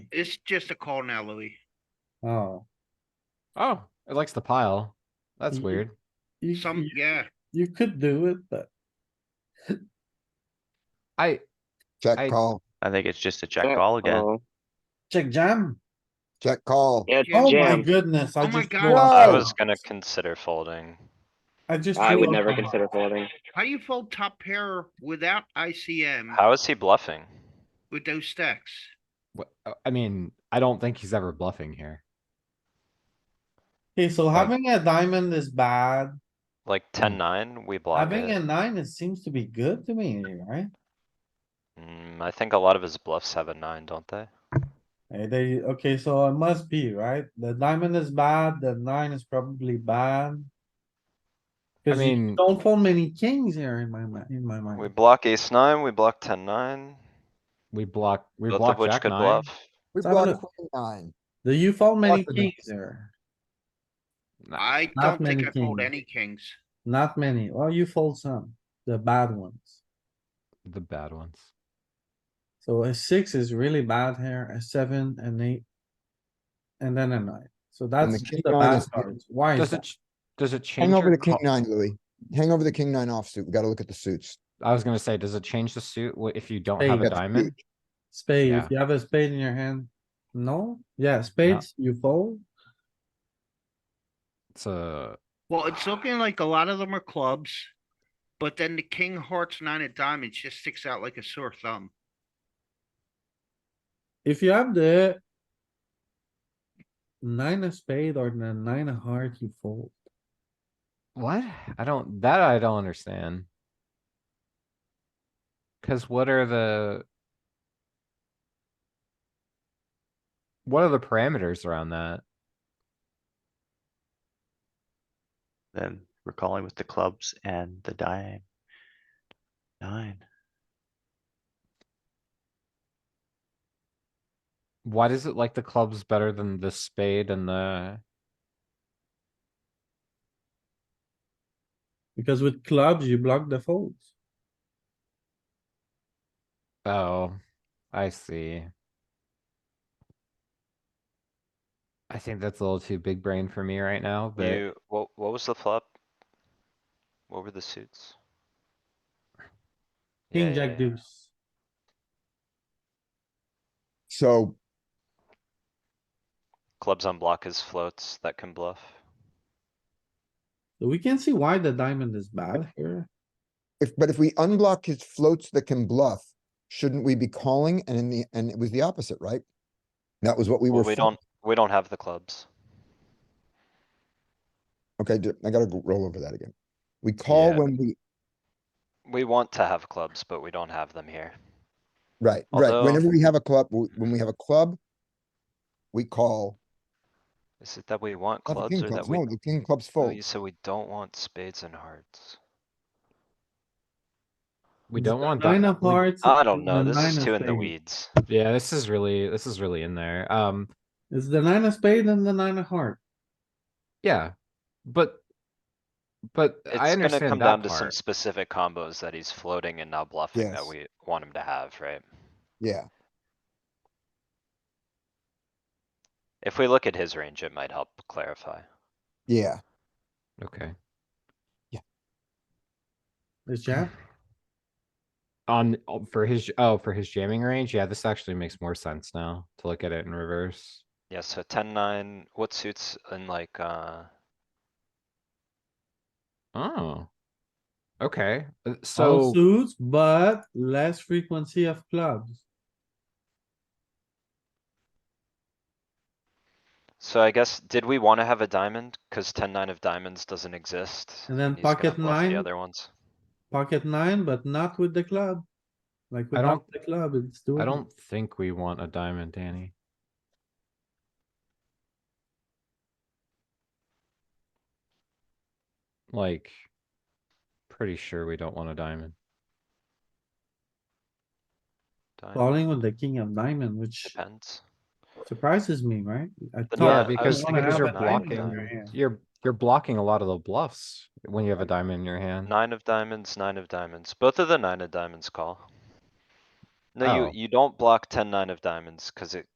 It's just a call now, Louis. Oh, Oh, it likes the pile. That's Mm-hmm. Mhm. weird. you, Some, you- yeah, you could do it, but I, I- Check call, I think it's just a check call again. Oh, check jam. check call. Yeah, Yeah, Oh my jam. goodness, I Oh my just. God. blew up. I I Oh. was gonna consider folding. I just. I blew would up never on him. consider folding. how you fold top pair without ICM How is he bluffing? with those stacks? wh- uh, I mean, I don't think he's ever bluffing here. Okay, so Like- having a diamond is bad. Like Hmm. ten nine, we block Having a it. nine, it seems to be good to me, right? Mm, I think a lot of his bluffs have a nine, don't they? Eh, they, okay, so it must be, right? The diamond is bad, the nine is probably bad. I Cause you mean- don't fold many kings here in my mind, in my Hmm. We mind. block ace nine, we block ten nine, We block, we both of block which jack could nine. bluff. We Let's have a blocked look. queen nine. Do you fold many Lots of them. kings here? I Not don't think many I fold kings. any kings. Not many. Well, you fold some, the bad ones. The bad ones. So a six is really bad here, a seven, an eight. And then a nine. So that's king just the nine bad is- cards. Why is Does it, that? ch- does it change? Hang over your the king col- nine, Louis. Hang over the king nine offsuit. We gotta look at the suits. I was gonna say, does it change the suit wh- if you don't Hey, have a that's diamond? Spade, if Yeah. you have a spade in your hand, no? Yeah, spades, you fold. It's a, Well, it's looking like a lot of them are clubs. But then the king hearts nine of diamonds just sticks out like a sore thumb. If you have the nine of spade or the nine of heart, you fold. what? I don't, that I don't understand. Cause what are the? What are the parameters around that? Then we're calling with the clubs and the dime. Nine. Why does it like the clubs better than the spade and the, Because with clubs, you block the folds. oh, I see. I think that's a little too big brain for me right now, but You, what, what was the flop? What were the suits? Yeah, King, yeah, jack, yeah. deuce. So Clubs on block is floats that can bluff. So We can see why the diamond is bad here. if, but if we unblock his floats that can bluff, shouldn't we be calling? And in the, and it was the opposite, right? That was what we were. Well, we fo- don't, we don't have the clubs. Okay, d- I gotta go- roll over that again. We call Yeah. when we, We want to have clubs, but we don't have them here. right, right. Although- Whenever we have a club, w- when we have a club, we call. Is it that we want Not the clubs king or that clubs. we? No, the king clubs Oh, fold. you said we don't want spades and hearts. we don't want. Nine di- of we- hearts. I don't and know, the this nine is of too in the spade. weeds. Yeah, this is really, this is really in there. Um, It's the nine of spade and the nine of heart. yeah, but. But I It's gonna come understand down that to some part. specific combos that he's floating and not bluffing that Yes. we want him to have, right? Yeah, If we look at his range, it might help clarify. yeah. Okay, It's jam. on, oh, for his, oh, for his jamming range, yeah, this actually makes more sense now to look at it in reverse. Yeah, so ten nine, what suits in like, uh, Oh. Okay, uh, so. All suits, but less frequency of clubs. so I guess, did we wanna have a diamond? Cause ten nine of diamonds doesn't exist. And then he's gonna pocket bluff nine? The other ones. Pocket nine, but not with the club. Like I don't- without the club, it's doing. I don't think we want a diamond, Danny. Like, pretty sure we don't want a diamond. Diamond, Falling with the king of diamond, which Depends. surprises me, right? I thought Yeah, I Yeah, would because, wanna because have you're a diamond in blocking, your hand. you're, you're blocking a lot of the bluffs when you have a diamond in your hand. Nine of diamonds, nine of diamonds. Both of the nine of diamonds call. No, Oh. you, you don't block ten nine of diamonds, cause it